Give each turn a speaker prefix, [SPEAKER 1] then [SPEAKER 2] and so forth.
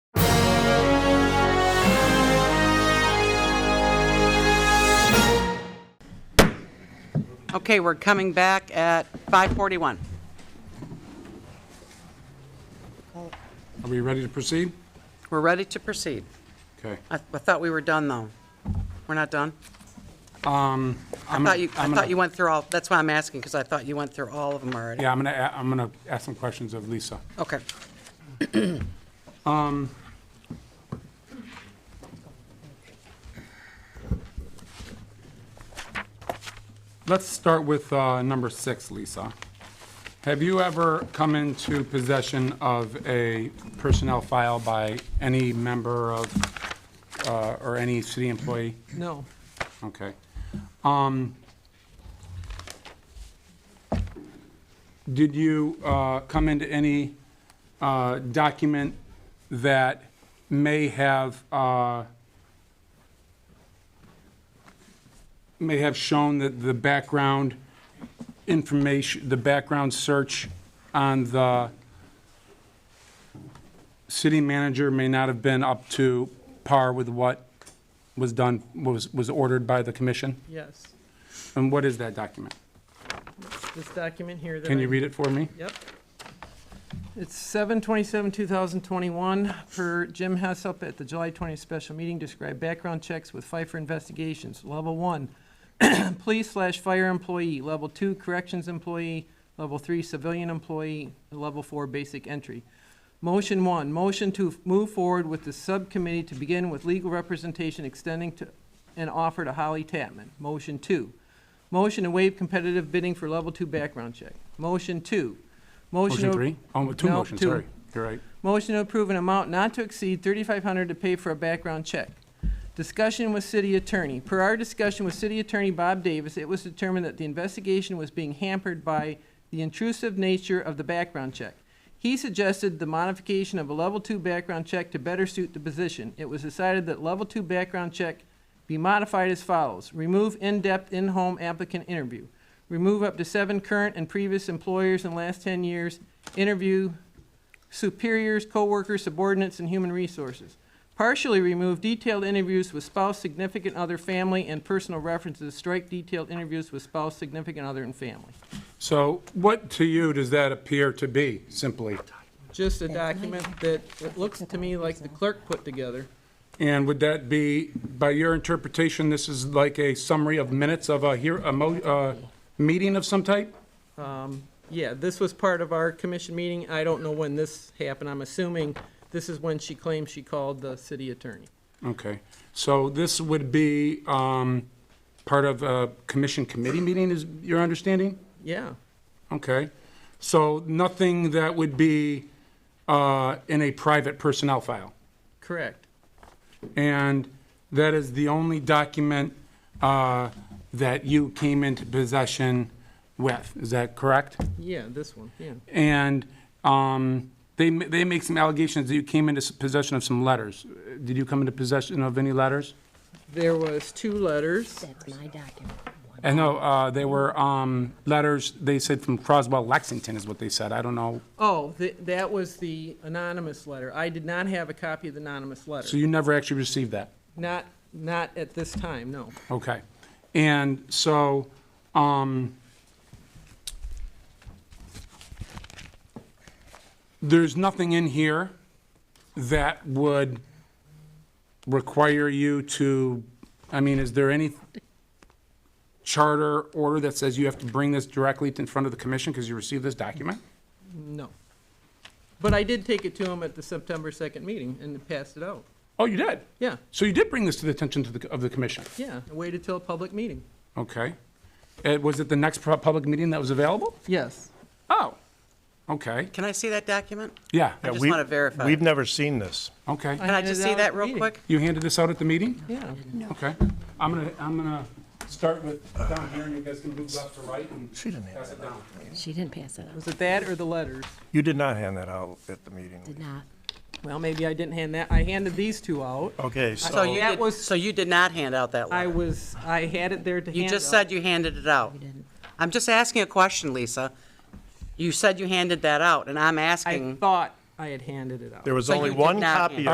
[SPEAKER 1] Okay, we're coming back at 5:41.
[SPEAKER 2] Are we ready to proceed?
[SPEAKER 1] We're ready to proceed.
[SPEAKER 2] Okay.
[SPEAKER 1] I I thought we were done, though. We're not done? I
[SPEAKER 2] I'm
[SPEAKER 1] thought you, I
[SPEAKER 2] I'm
[SPEAKER 1] thought you went through all, that's why I'm asking, because I thought you went through all of them already.
[SPEAKER 2] Yeah, I'm going to, I'm going to ask some questions of Lisa.
[SPEAKER 1] Okay.
[SPEAKER 2] Let's start with uh, number six, Lisa. Have you ever come into possession of a personnel file by any member of, uh, or any city employee?
[SPEAKER 3] No.
[SPEAKER 2] Okay. Um, Did you uh, come into any uh, document that may have, uh, may have shown that the background information, the background search on the city manager may not have been up to par with what was done, was, was ordered by the commission?
[SPEAKER 3] Yes.
[SPEAKER 2] And what is that document?
[SPEAKER 3] This document here that I...
[SPEAKER 2] Can you read it for me?
[SPEAKER 3] Yep. It's seven twenty-seven, two thousand twenty-one, per Jim Hessup at the July twentieth special meeting, described background checks with Pfeiffer investigations. Level one, police slash fire employee. Level two, corrections employee. Level three, civilian employee. And Level four, basic entry. Motion one, motion to move forward with the subcommittee to begin with legal representation extending to and offer to Holly Tapman. Motion two, motion to waive competitive bidding for level two background check. Motion two, motion.
[SPEAKER 2] Motion
[SPEAKER 3] to-
[SPEAKER 2] three? Oh, two
[SPEAKER 3] No,
[SPEAKER 2] motions,
[SPEAKER 3] two.
[SPEAKER 2] sorry. You're right.
[SPEAKER 3] Motion to approve an amount not to exceed thirty-five hundred to pay for a background check. Discussion with city attorney. Per our discussion with city attorney Bob Davis, it was determined that the investigation was being hampered by the intrusive nature of the background check. He suggested the modification of a level two background check to better suit the position. It was decided that level two background check be modified as follows. Remove in-depth in-home applicant interview. Remove up to seven current and previous employers in the last ten years. Interview superiors, coworkers, subordinates, and human resources. Partially remove detailed interviews with spouse, significant other, family, and personal references. Strike detailed interviews with spouse, significant other, and family.
[SPEAKER 2] So what to you does that appear to be, simply?
[SPEAKER 3] Just a document that, it looks to me like the clerk put together.
[SPEAKER 2] And would that be, by your interpretation, this is like a summary of minutes of a here, a mo, uh, meeting of some type?
[SPEAKER 3] Yeah, this was part of our commission meeting. I don't know when this happened. I'm assuming this is when she claims she called the city attorney.
[SPEAKER 2] Okay. So this would be, um, part of a commission committee meeting, is your understanding?
[SPEAKER 3] Yeah,
[SPEAKER 2] Okay. So nothing that would be, uh, in a private personnel file?
[SPEAKER 3] correct.
[SPEAKER 2] And that is the only document uh, that you came into possession with, is that correct?
[SPEAKER 3] Yeah, this one, yeah.
[SPEAKER 2] And um, they, ma- they make some allegations that you came into s- possession of some letters. Uh, Did you come into possession of any letters?
[SPEAKER 3] There was two letters.
[SPEAKER 4] That's my document.
[SPEAKER 2] I know, uh, they were um, letters, they said from Croswell, Lexington is what they said, I don't know.
[SPEAKER 3] Oh, th- that was the anonymous letter. I did not have a copy of the anonymous
[SPEAKER 2] So
[SPEAKER 3] letter.
[SPEAKER 2] you never actually received that?
[SPEAKER 3] Not, not at this time, no.
[SPEAKER 2] Okay. And so, um, there's nothing in here that would require you to, I mean, is there any charter order that says you have to bring this directly in front of the commission because you received this document?
[SPEAKER 3] No. But I did take it to him at the September 2nd meeting and passed it out.
[SPEAKER 2] Oh, you did?
[SPEAKER 3] Yeah,
[SPEAKER 2] So you did bring this to the attention to the, of the commission?
[SPEAKER 3] yeah. I waited till a public meeting.
[SPEAKER 2] Okay. Uh, was it the next pu- public meeting that was available?
[SPEAKER 3] Yes.
[SPEAKER 2] Oh, okay.
[SPEAKER 1] Can I see that document?
[SPEAKER 2] Yeah.
[SPEAKER 1] I
[SPEAKER 5] Yeah,
[SPEAKER 1] just
[SPEAKER 5] we-
[SPEAKER 1] want to verify.
[SPEAKER 5] We've never seen this.
[SPEAKER 2] Okay.
[SPEAKER 1] Can I
[SPEAKER 3] handed
[SPEAKER 1] just
[SPEAKER 3] it
[SPEAKER 1] see
[SPEAKER 3] out at
[SPEAKER 1] that
[SPEAKER 3] the
[SPEAKER 1] real
[SPEAKER 3] meeting.
[SPEAKER 1] quick?
[SPEAKER 2] You handed this out at the meeting?
[SPEAKER 3] Yeah.
[SPEAKER 2] Okay. I'm gonna, I'm gonna start with down here, and you guys can move left to right and pass it down.
[SPEAKER 4] She didn't pass it out.
[SPEAKER 3] Was it that or the letters?
[SPEAKER 5] You did not hand that out at the meeting.
[SPEAKER 4] Did not.
[SPEAKER 3] Well, maybe I didn't hand that. I handed these two out.
[SPEAKER 5] Okay,
[SPEAKER 1] So you
[SPEAKER 5] so,
[SPEAKER 3] That
[SPEAKER 1] did,
[SPEAKER 3] was-
[SPEAKER 1] so you did not hand out that
[SPEAKER 3] I
[SPEAKER 1] letter?
[SPEAKER 3] was, I had it there to hand
[SPEAKER 1] You just
[SPEAKER 3] out.
[SPEAKER 1] said you handed it out.
[SPEAKER 4] didn't.
[SPEAKER 1] I'm just asking a question, Lisa. You said you handed that out, and I'm
[SPEAKER 3] I
[SPEAKER 1] asking,
[SPEAKER 3] thought I had handed it out.
[SPEAKER 5] there was
[SPEAKER 1] So
[SPEAKER 5] only
[SPEAKER 1] you did
[SPEAKER 5] one
[SPEAKER 1] not
[SPEAKER 5] copy
[SPEAKER 1] hand-